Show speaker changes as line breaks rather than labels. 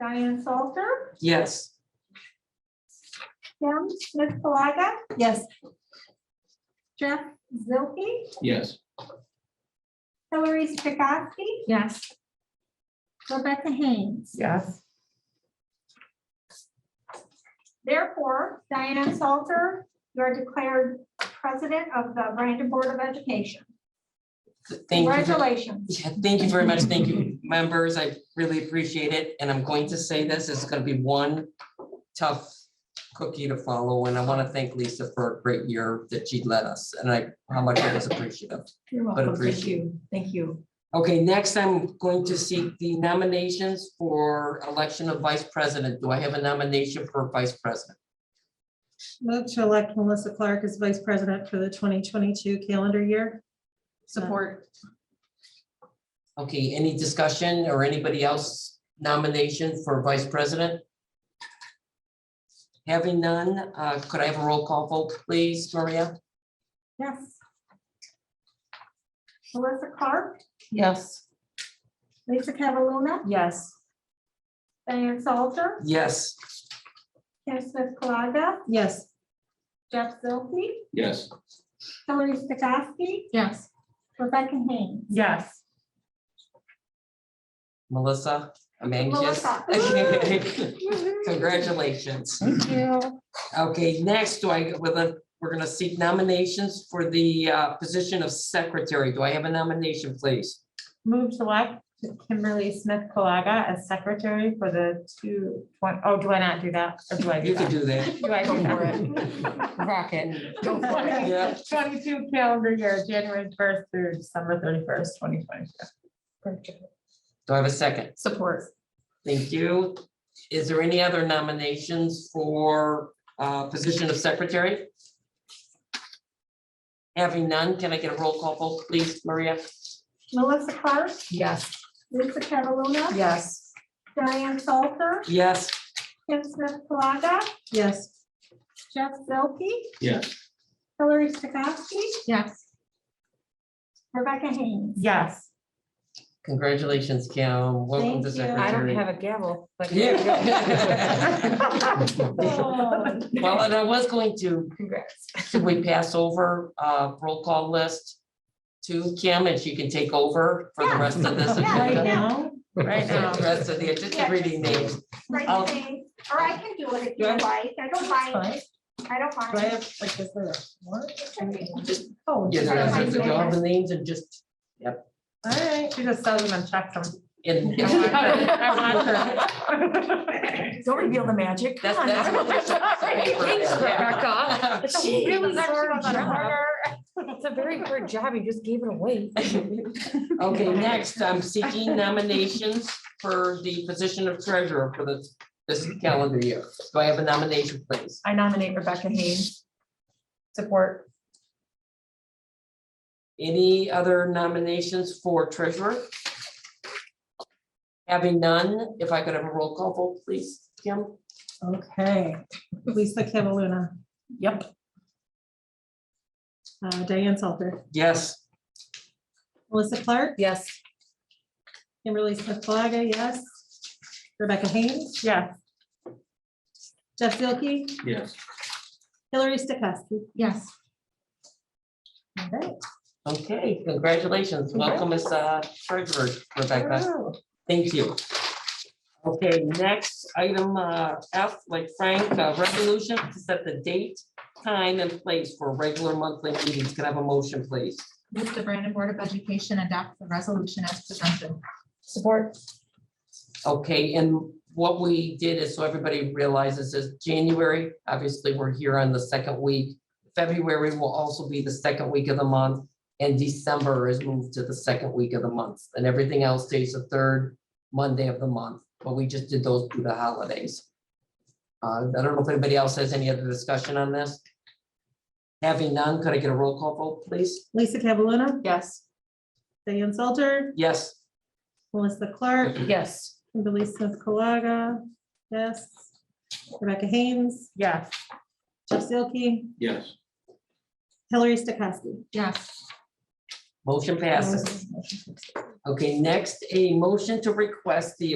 Diane Salter,
Yes.
Kim Smith Colaga,
Yes.
Jeff Zilke,
Yes.
Hillary Strakowski,
Yes.
Rebecca Haynes.
Yes.
Therefore, Diane Salter, you're declared president of the Brandon Board of Education.
Thank you. ver-
Congratulations.
Yeah, Thank you very much. Thank you, members. I really appreciate it. And I'm going to say this, it's gonna be one tough cookie to follow. And I want to thank Lisa for a great year that she led us and I, how much I was appreciative.
You're
But
welcome. Thank
appreciate-
you. Thank you.
Okay, next I'm going to seek the nominations for election of vice president. Do I have a nomination for vice president?
Move to elect Melissa Clark as vice president for the 2022 calendar year. Uh,
Support.
Okay, any discussion or anybody else nomination for vice president? Having none, uh, could I have a roll call vote, please, Maria?
Yes. Melissa Clark,
Yes.
Lisa Cataluna,
Yes.
Diane Salter,
Yes,
Kim Smith Colaga,
Yes,
Jeff Zilke,
Yes.
Hillary Strakowski,
Yes.
Rebecca Haynes.
Yes.
Melissa, I'm anxious.
Melissa.
Congratulations.
Thank you.
Okay, next, do I, with a, we're gonna seek nominations for the uh, position of secretary. Do I have a nomination, please?
Move to elect Kimberly Smith Colaga as secretary for the two, twen- oh, do I not do that? Or do I do
You can
that?
do that.
Do I do
Go for
that?
it. Rocket.
Go for it.
Yeah.
Twenty-two calendar year, January first through December thirty-first, twenty twenty-two.
Do I have a second?
Support.
Thank you. Is there any other nominations for uh, position of secretary? Having none, can I get a roll call vote, please, Maria?
Melissa Clark,
Yes.
Lisa Cataluna,
Yes.
Diane Salter,
Yes,
Kim Smith Colaga,
yes,
Jeff Zilke,
Yes.
Hillary Strakowski,
Yes.
Rebecca Haynes.
Yes,
congratulations, Kim. Welcome to
Thank you. I
secretary.
a gavel, but.
Yeah. Well, and I was going to,
Congrats.
should we pass over uh, roll call list to Kim and she can take over for the rest of this
Yeah,
agenda?
yeah.
no,
Right now, the rest of the,
Yeah.
just reading names.
Right,
Oh.
Haynes. or I can do it if you
Yeah.
like. I don't mind. I don't
do I
mind.
have, like, is there a warrant? I mean,
Just-
Oh,
Yeah, the
all
rest of
right,
the, all the names and just,
she just sells them and checks them.
and.
I want her. I want her.
Don't reveal the magic.
That's, that's what we're
Thanks, Rebecca.
supposed
It's a really hard
Actually,
job.
harder.
It's a very hard job. You just gave it away.
to do. Okay, next, I'm seeking nominations for the position of treasurer for this, this calendar year. Do I have a nomination, please?
I nominate Rebecca Haynes. Support.
Any other nominations for treasurer? Having none, if I could have a roll call vote, please, Kim?
okay. Lisa Cataluna.
Yep.
Uh, Diane Salter,
Yes.
Melissa Clark,
Yes.
Kimberly Smith Colaga, yes. Rebecca Haynes,
Yeah.
Jeff Zilke,
Yes.
Hillary Stokowski.
Yes.
All right.
Okay, congratulations. Welcome as uh, treasurer, Rebecca. Thank you. Okay, next item uh, F, like Frank, uh, resolution to set the date, time, and place for regular monthly meetings. Can I have a motion, please?
Move the Brandon Board of Education adopt the resolution as presented.
Support.
Okay, and what we did is, so everybody realizes is January, obviously, we're here on the second week. February will also be the second week of the month, and December is moved to the second week of the month. And everything else stays the third Monday of the month, but we just did those through the holidays. Uh, I don't know if anybody else has any other discussion on this. Having none, could I get a roll call vote, please?
Lisa Cataluna,
Yes.
Diane Salter,
Yes.
Melissa Clark,
Yes.
Kimberly Smith Colaga, yes. Rebecca Haynes,
Yes.
Jeff Zilke,
Yes.
Hillary Stokowski.
Yes.
Motion passes. Okay, next, a motion to request the